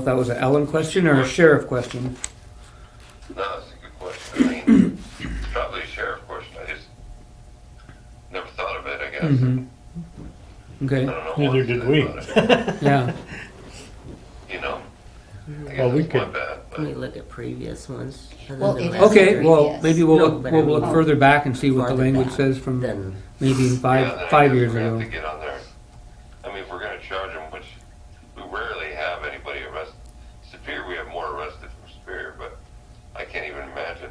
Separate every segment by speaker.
Speaker 1: If That was an Ellen question or a sheriff question?
Speaker 2: No, that's a good question. I mean, probably a sheriff question. I just never thought of it, I guess.
Speaker 3: Mm-hmm.
Speaker 1: Mhm.
Speaker 2: I
Speaker 1: Okay,
Speaker 2: don't know.
Speaker 4: Mm-hmm. Neither
Speaker 2: what to
Speaker 4: did
Speaker 2: say
Speaker 4: we.
Speaker 2: about it,
Speaker 1: yeah,
Speaker 2: You know? I
Speaker 4: Well,
Speaker 2: guess
Speaker 4: we
Speaker 2: it's my
Speaker 4: could-
Speaker 2: bad,
Speaker 3: Let me
Speaker 2: but
Speaker 3: look at previous ones. and
Speaker 5: Well,
Speaker 3: then
Speaker 5: if-
Speaker 3: the last
Speaker 1: okay,
Speaker 3: three.
Speaker 1: well, maybe we'll,
Speaker 3: No,
Speaker 1: look-
Speaker 3: but
Speaker 1: we'll
Speaker 3: I
Speaker 1: look
Speaker 3: mean-
Speaker 1: further back and see what the
Speaker 3: Farther
Speaker 1: language
Speaker 3: back
Speaker 1: says from
Speaker 3: Then,
Speaker 1: maybe
Speaker 2: yeah, then I
Speaker 1: five, five
Speaker 2: guess
Speaker 1: years
Speaker 2: we're gonna
Speaker 1: ago.
Speaker 2: Have to get on there. I mean, if we're going to charge them, which we rarely have anybody arrested. Superior, we have more arrested from Superior, but I can't even imagine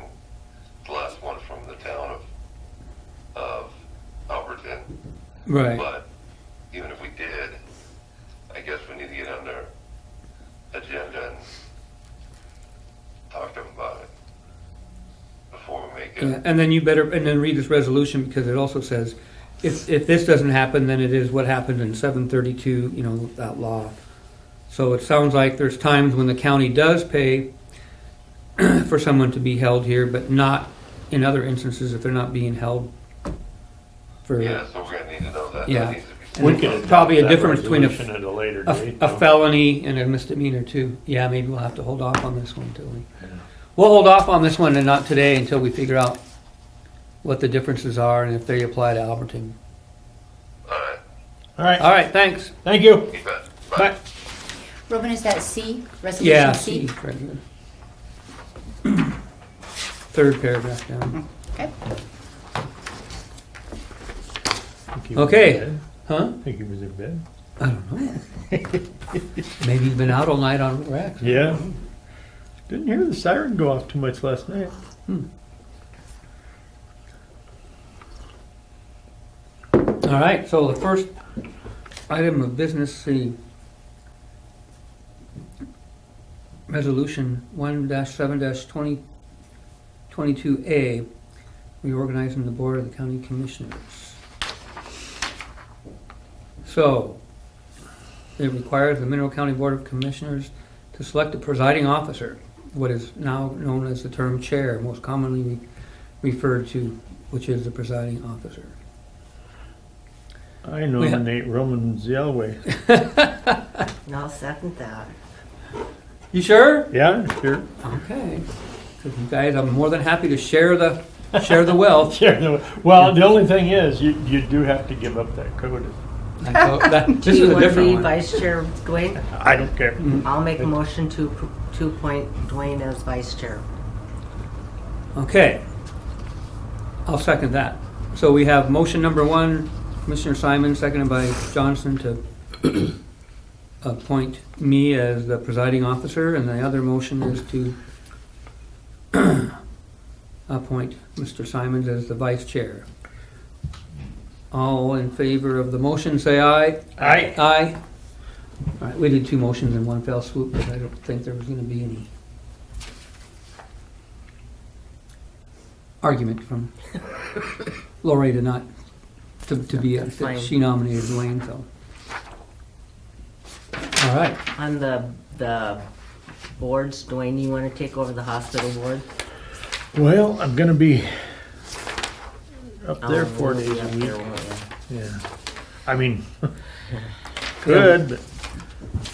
Speaker 2: the last one from the town of of Alberton.
Speaker 1: Right,
Speaker 2: But even if we did, I guess we need to get on their agenda and talk to them about it before we make
Speaker 1: yeah,
Speaker 2: it.
Speaker 1: and then you better, and then read this resolution because it also says, if, if this doesn't happen, then it is what happened in seven thirty-two, you know, that law. So it sounds like there's times when the county does pay for someone to be held here, but not in other instances if they're not being held for.
Speaker 2: Yeah, so we're gonna need to know that. That
Speaker 1: Yeah.
Speaker 2: needs to
Speaker 1: And
Speaker 2: be
Speaker 4: We
Speaker 1: it's
Speaker 4: could
Speaker 1: probably a
Speaker 4: adopt that
Speaker 1: difference between a-
Speaker 4: resolution At a later
Speaker 1: A,
Speaker 4: date.
Speaker 1: a
Speaker 4: though.
Speaker 1: felony and a misdemeanor too. Yeah, maybe we'll have to hold off on this one until we. We'll hold off on this one and not today until we figure out what the differences are and if they apply to Alberton.
Speaker 2: All right,
Speaker 4: All right,
Speaker 1: All right, thanks.
Speaker 4: thank you.
Speaker 2: you bet.
Speaker 1: Bye.
Speaker 5: Robin, is that C,
Speaker 1: Yeah.
Speaker 5: resolution
Speaker 1: see,
Speaker 5: C?
Speaker 1: right here. Third paragraph down.
Speaker 5: Okay.
Speaker 4: I think he was in
Speaker 1: Okay.
Speaker 4: bed.
Speaker 1: Huh?
Speaker 4: I think he was in bed.
Speaker 1: I don't know. Maybe you've been out all night on racks.
Speaker 4: Yeah. Didn't hear the siren go off too much last night.
Speaker 1: All right, so the first item of business, C. Resolution one seven twenty, twenty-two A, reorganizing the Board of the County Commissioners. So, it requires the Mineral County Board of Commissioners to select a presiding officer, what is now known as the term chair, most commonly referred to, which is the presiding officer.
Speaker 4: I nominate Roman Zellway.
Speaker 3: and I'll second that.
Speaker 1: You sure?
Speaker 4: Yeah, sure.
Speaker 1: Okay. So you guys, I'm more than happy to share the, share the wealth.
Speaker 4: Sure. no. Well, the only thing is, you, you do have to give up that code.
Speaker 1: I thought that- This
Speaker 3: Do
Speaker 1: is
Speaker 3: you
Speaker 1: a
Speaker 3: want to be
Speaker 1: different one.
Speaker 3: Vice Chair Dwayne?
Speaker 4: I don't care.
Speaker 1: Mm-hmm.
Speaker 3: I'll make a motion to, appro- to appoint Dwayne as Vice Chair.
Speaker 1: Okay. I'll second that. So we have motion number one, Commissioner Simon, seconded by Johnson to appoint me as the presiding officer, and the other motion is to appoint Mr. Simons as the vice chair. All in favor of the motion, say aye.
Speaker 4: Aye.
Speaker 1: Aye. All right, we did two motions in one fell swoop, but I don't think there was gonna be any argument from Lori to not, to, to be,
Speaker 3: That's fine.
Speaker 1: she nominated Dwayne, so. All right,
Speaker 3: On the, the boards, Dwayne, you want to take over the hospital board?
Speaker 4: Well, I'm gonna be up there
Speaker 3: Oh,
Speaker 4: four
Speaker 3: we'll be
Speaker 4: days
Speaker 3: up
Speaker 4: a
Speaker 3: there,
Speaker 4: week.
Speaker 3: won't
Speaker 4: Yeah. I mean, good, but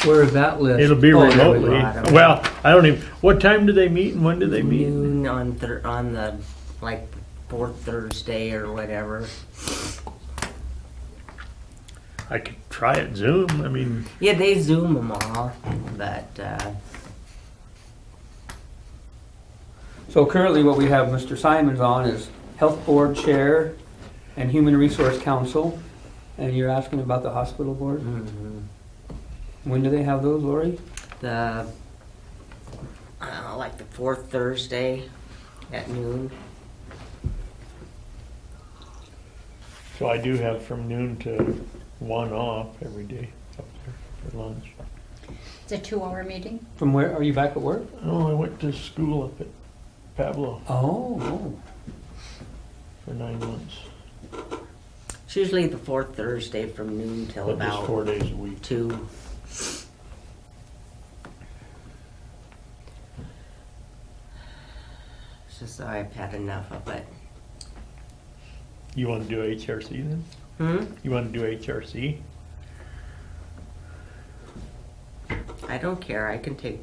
Speaker 1: where's that list?
Speaker 4: it'll be
Speaker 1: Oh, there we go.
Speaker 4: remotely.
Speaker 3: go.
Speaker 4: Well, I don't even, what time do they meet and when do they
Speaker 3: we?
Speaker 4: meet?
Speaker 3: Noon on Thur, on the, like, fourth Thursday or whatever.
Speaker 4: I could try it Zoom. I mean,
Speaker 3: Yeah, they Zoom them all, but, uh,
Speaker 1: So currently what we have Mr. Simons on is Health Board Chair and Human Resource Council. And you're asking about the hospital board?
Speaker 3: mhm.
Speaker 4: Mm-hmm.
Speaker 1: When do they have those, Lori?
Speaker 3: the I don't know, like the fourth Thursday at noon.
Speaker 4: so I do have from noon to one off every day up there for lunch.
Speaker 5: It's a two-hour meeting.
Speaker 1: From where, are you back at work?
Speaker 4: Oh, I went to school up at Pablo
Speaker 1: Oh,
Speaker 4: for nine months.
Speaker 3: It's usually the fourth Thursday from noon till
Speaker 4: That was four
Speaker 3: about
Speaker 4: days a week.
Speaker 3: two. It's just I've had enough of it.
Speaker 4: You want to do HRC then?
Speaker 3: Hmm?
Speaker 4: You want to do HRC?
Speaker 3: I I don't care, I can take